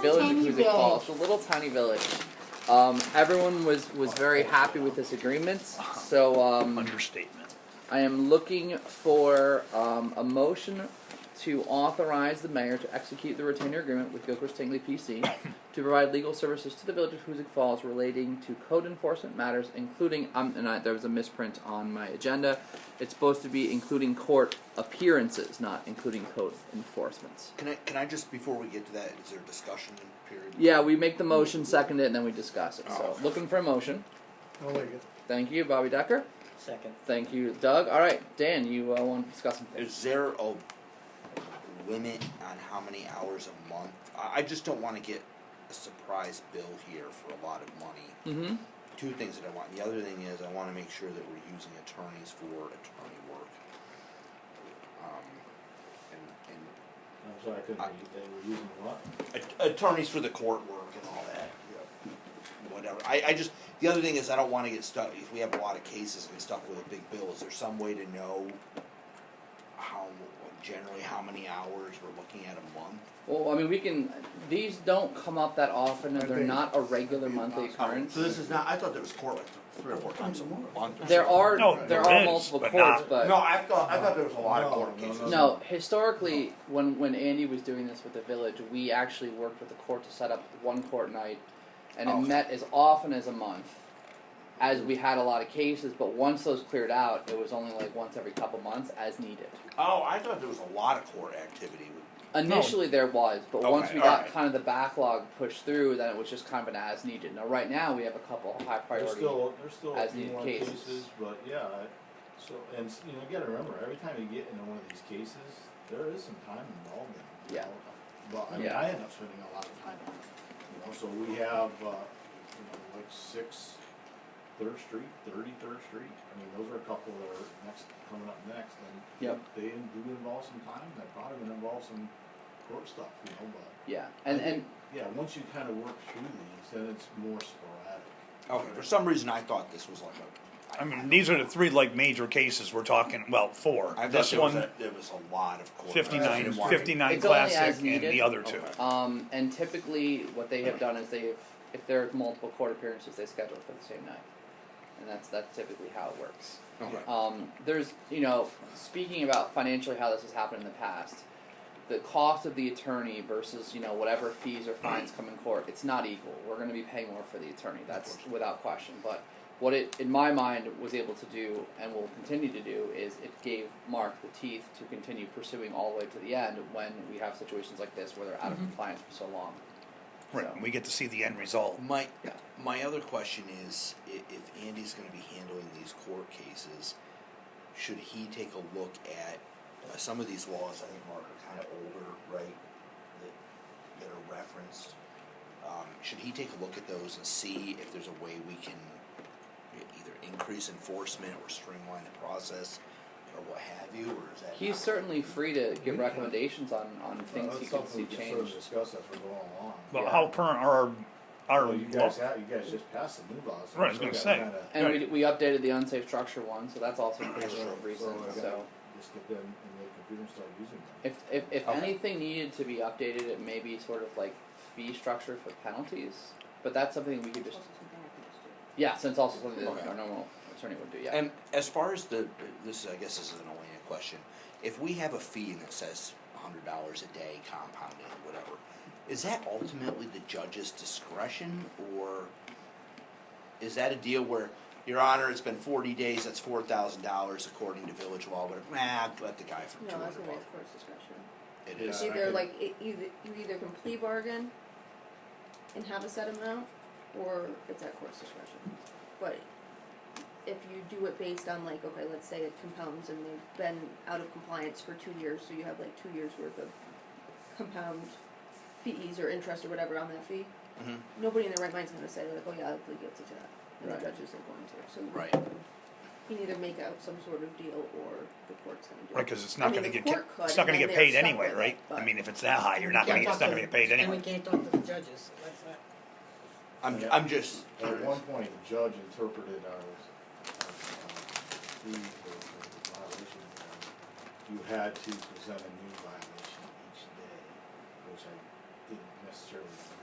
village Tiny of Huzik village. Falls, a little tiny village. Um, everyone was, was very happy with this agreement, so, um, Understatement. I am looking for, um, a motion to authorize the mayor to execute the retainer agreement with Gilchrist Tingley PC to provide legal services to the village of Huzik Falls relating to code enforcement matters, including, um, and I, there was a misprint on my agenda. It's supposed to be including court appearances, not including code enforcements. Can I, can I just, before we get to that, is there a discussion period? Yeah, we make the motion, second it, and then we discuss it. So, looking for a motion. I'll make it. Thank you, Bobby Decker. Second. Thank you, Doug. All right, Dan, you uh, want to discuss some things? Is there a limit on how many hours a month? I, I just don't wanna get a surprise bill here for a lot of money. Mm-hmm. Two things that I want, the other thing is I wanna make sure that we're using attorneys for attorney work. Um, and, and I'm sorry, I couldn't hear you. They were using what? a- attorneys for the court work and all that. Whatever. I, I just the other thing is I don't want to get stuck if we have a lot of cases and get stuck with a big bill. Is there some way to know how generally how many hours we're looking at a month? Well, I mean, we can. These don't come up that often, and I they're think not a regular monthly occurrence. So this is not. I thought there was court like three or four times a month. Or There something. are No, there there are is, multiple but courts, not- but No, I thought I thought there was a lot of court No, no, cases. no, No, historically, when when Andy was doing this with the village, we actually worked with the court to set up one court night, and Okay. it met as often as a month, as we had a lot of cases. But once those cleared out, it was only like once every couple months, as needed. Oh, I thought there was a lot of court activity. Initially, there was, but once Okay, we got alright. kind of the backlog pushed through, then it was just kind of an as needed. Now, right now, we have a couple of high There's priority. still, there's still a as few needed more cases. cases, but yeah, I- so, and, s- you know, you gotta remember, every time you get into one of these cases, there is some time involved in it. you Yeah. know. But, I mean, Yeah. I end up spending a lot of time on it, you know, so we have, uh, you know, like six Third Street, Thirty Third Street, I mean, those are a couple that are next, coming up next, and Yep. they do involve some time, and they probably gonna involve some court stuff, you know, but yeah, and and yeah, once you kind of work through these, then it's more sporadic. Okay. For some reason, I thought this was like a. I mean, these are the three like major cases we're talking, well, four. I thought This there was one, a- there was a lot of court. 59, activity. 59 It's only as classic and needed. the other two. Okay. Um, and typically, what they have done is they've, if there are multiple court appearances, they schedule it for the same night, and that's that's typically how it works. Okay. Um, there's, you know, speaking about financially how this has happened in the past, the cost of the attorney versus you know whatever fees or fines come in court, it's not equal. We're going to be paying more for the attorney. That's without question. But what it, in my mind, was able to do and will continue to do is it gave Mark the teeth to continue pursuing all the way to the end when we have situations like this where they're out of compliance for so long. Mm-hmm. Right, and we get to see the end result. My my other question is, i- if Andy's going to be handling these court cases, should he take a look at uh, some of these laws? I think Mark are kind of older, right? That that are referenced. Um, should he take a look at those and see if there's a way we can e- either increase enforcement or streamline the process or what have you? Or is that He's not- certainly free to give recommendations on, on things he Well, that's can something see we can sort of changed. discuss as we're going along. But Yeah. how current are our, our Well, you guys have, you guys just passed the new laws. so Right, I was we gonna still say. gotta kinda And we, we updated the unsafe structure one, so that's also pretty That's true. recent. So I gotta- So. Just get them and the computer and start using them. If if, if Okay. anything needed to be updated, it may be sort of like fee structure for penalties. But that's something we could just yeah, since it's also something that Okay. our normal attorney would do. Yeah. And as far as the, this I guess this is an Elena question. If we have a fee that says hundred dollars a day compounded, whatever, is that ultimately the judge's discretion, or is that a deal where, Your Honor, it's been forty days, that's four thousand dollars according to village law, but nah, let the guy for two No, hundred that's gonna be the bucks. court's discretion. It Yeah. is. It's either like, it either, you either can plea bargain and have a set amount, or it's at court's discretion. But if you do it based on like, okay, let's say it compounds and they've been out of compliance for two years, so you have like two years worth of compound fees or interest or whatever on that fee. Mhm. Nobody in their right mind's gonna say like, oh yeah, I plead guilty to that, and the Right. judges are going to, so. Right. You can either make out some sort of deal, or the court's gonna do it. Right, because it's I not mean, going to get the ca- court could, it's not going and to then get they're paid stuck anyway, with it, right? I but- mean, if it's that high, you're not going to get it's not going to get paid anyway. And we can't talk to the judges, so that's not. I'm, I'm just. At one point, the judge interpreted our, our, uh, fee for for the violation. form. You had to present a new violation each day, which I didn't necessarily